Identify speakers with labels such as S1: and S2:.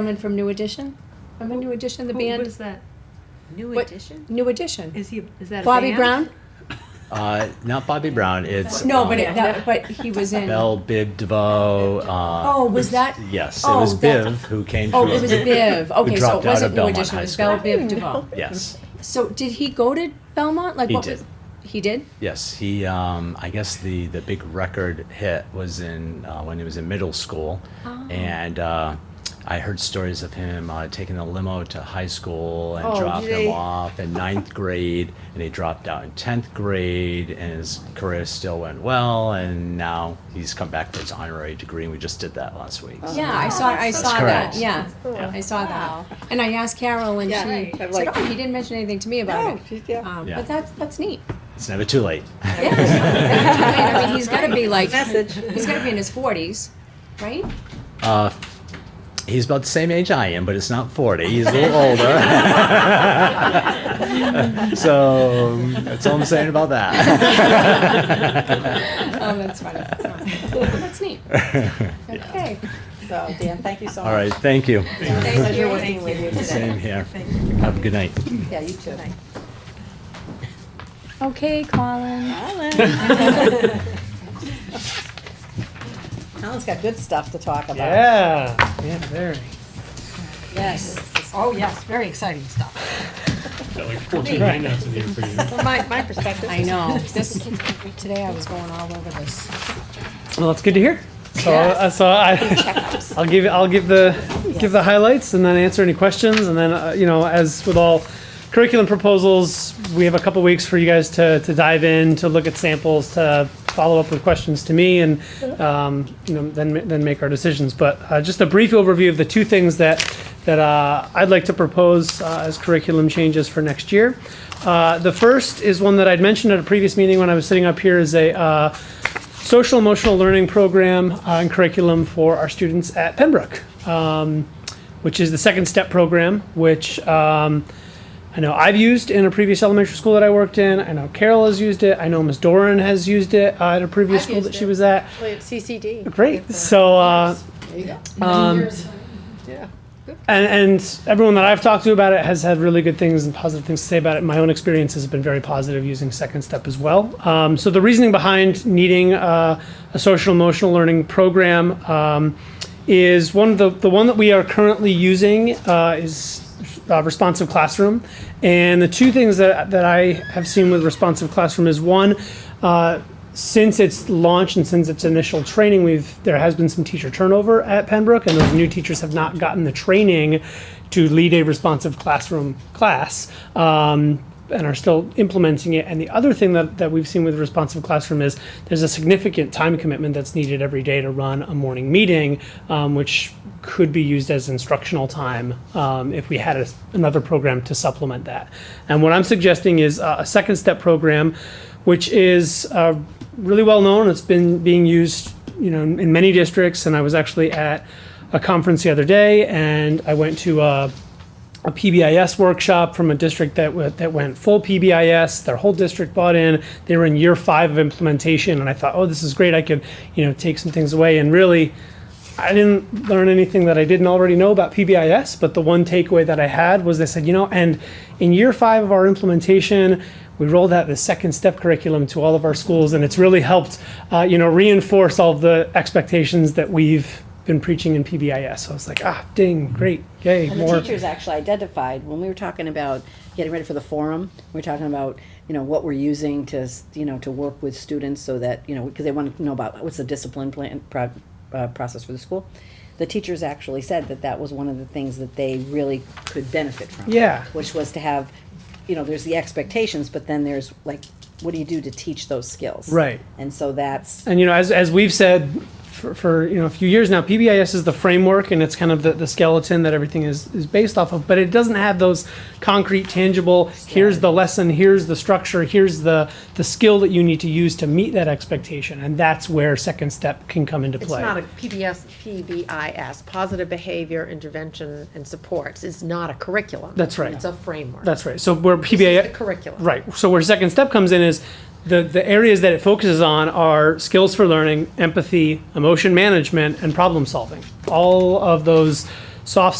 S1: Gentleman from New Edition? Remember New Edition, the
S2: Who
S1: band?
S2: was that?
S3: New
S1: What-
S3: edition?
S1: New Edition.
S2: Is he, is that a
S1: Bobby
S2: band?
S1: Brown?
S4: Uh, not Bobby Brown. It's
S1: No, but
S4: um,
S1: it, that, but he was in.
S4: Belle Biv DeVoe. Uh,
S1: Oh, was that?
S4: Yes,
S1: Oh,
S4: it was
S1: that-
S4: Biv who came.
S1: Oh,
S4: through.
S1: it was Biv. Okay, so
S4: dropped
S1: it
S4: out
S1: wasn't
S4: of
S1: New
S4: Belmont
S1: Edition, it
S4: High
S1: was
S4: School.
S1: Belle Biv DeVoe.
S4: Yes,
S1: So did he go to Belmont? Like
S4: He
S1: what
S4: did.
S1: was? He did?
S4: yes. He, um, I guess the the big record hit was in uh, when he was in middle school,
S1: Oh.
S4: and. Uh, I heard stories of him uh, taking a limo to high school and
S3: Oh,
S4: dropping
S3: gee.
S4: him off in ninth grade, and he dropped out in tenth grade, and his career still went well, and now he's come back for his honorary degree, and we just did that last week. so-
S1: Yeah, I saw, I
S4: so
S1: saw
S4: cool.
S1: that,
S4: Correct.
S1: yeah. I saw that. And I asked Carol and she
S3: Yeah,
S1: said,
S3: right. Like-
S1: oh, he didn't mention anything to me about it. Um,
S4: Yeah.
S1: But that's, that's neat.
S4: It's never too late.
S1: I mean, he's gotta be like,
S3: Message.
S1: he's gotta be in his forties, right?
S4: Uh, he's about the same age I am, but it's not 40. He's a little older. so that's all I'm saying about that.
S1: Oh, that's funny. That's neat. Okay.
S3: So, Oh, Dan, thank you so much.
S4: All right, thank you.
S3: Thank you. working with you
S4: Same
S3: today.
S4: here. Have a good night.
S3: Yeah, you too.
S1: Okay, Colin.
S3: Alan's got good stuff to talk about.
S5: Yeah, yeah, very.
S3: Yes. Oh, yes, very exciting stuff.
S6: Got like fourteen handouts in here for you.
S3: From my, my perspective.
S1: I know, this, today I was going all over this.
S5: Well, that's good to hear. So, uh, so I, I'll give I'll give the give the highlights and then answer any questions and then uh, you know as with all curriculum proposals, we have a couple weeks for you guys to to dive in to look at samples to follow up with questions to me and um, you know then ma- then make our decisions. But uh, just a brief overview of the two things that that uh, I'd like to propose uh, as curriculum changes for next year. Uh, the first is one that I'd mentioned at a previous meeting when I was sitting up here is a uh, social emotional learning program uh, and curriculum for our students at Pembroke, um, which is the second step program, which um, I know I've used in a previous elementary school that I worked in. I know Carol has used it. I know Ms. Doran has used it uh, at a previous
S7: I've
S5: school that
S7: used
S5: she
S7: it.
S5: was at.
S7: Play at CCD.
S5: Great. So, uh,
S3: There you go.
S5: um, and, and everyone that I've talked to about it has had really good things and positive things to say about it. My own experience has been very positive using Second Step as well. Um, so the reasoning behind needing uh, a social emotional learning program um, is one of the the one that we are currently using uh, is uh, responsive classroom, and the two things that that I have seen with responsive classroom is one. Uh, since its launch and since its initial training, we've there has been some teacher turnover at Pembroke, and those new teachers have not gotten the training to lead a responsive classroom class. Um, and are still implementing it. And the other thing that, that we've seen with responsive classroom is there's a significant time commitment that's needed every day to run a morning meeting, um, which could be used as instructional time um, if we had a, another program to supplement that. And what I'm suggesting is uh, a second step program which is uh, really well known. It's been being used, you know, in many districts. And I was actually at a conference the other day, and I went to uh, a, a PBIS workshop from a district that w- that went full PBIS. Their whole district bought in. They were in year five of implementation, and I thought, oh, this is great. I could, you know, take some things away and really. I didn't learn anything that I didn't already know about PBIS, but the one takeaway that I had was they said, you know, and in year five of our implementation, we rolled out the second step curriculum to all of our schools, and it's really helped, uh, you know, reinforce all of the expectations that we've been preaching in PBIS. So I was like, ah, ding, great, yay,
S3: And
S5: more.
S3: the teachers actually identified when we were talking about getting ready for the forum. We were talking about you know what we're using to s- you know to work with students so that you know because they wanted to know about what's the discipline plan pro, uh, process for the school. The teachers actually said that that was one of the things that they really could benefit from.
S5: Yeah.
S3: which was to have you know there's the expectations, but then there's like what do you do to teach those skills?
S5: Right.
S3: And so that's
S5: and you know, as, as we've said for, for you know a few years now, PBIS is the framework and it's kind of the, the skeleton that everything is, is based off of, but it doesn't have those concrete, tangible, here's the lesson, here's the structure, here's the, the skill that you need to use to meet that expectation. And that's where second step can come into
S7: It's
S5: play.
S7: not a PBS, PBIS, Positive Behavior Intervention and Supports. It's not a curriculum.
S5: That's right.
S7: It's a framework.
S5: That's right. So where
S7: This is
S5: PBIS
S7: the curriculum.
S5: Right. So where second step comes in is the, the areas that it focuses on are skills for learning, empathy, emotion management, and problem solving. All of those soft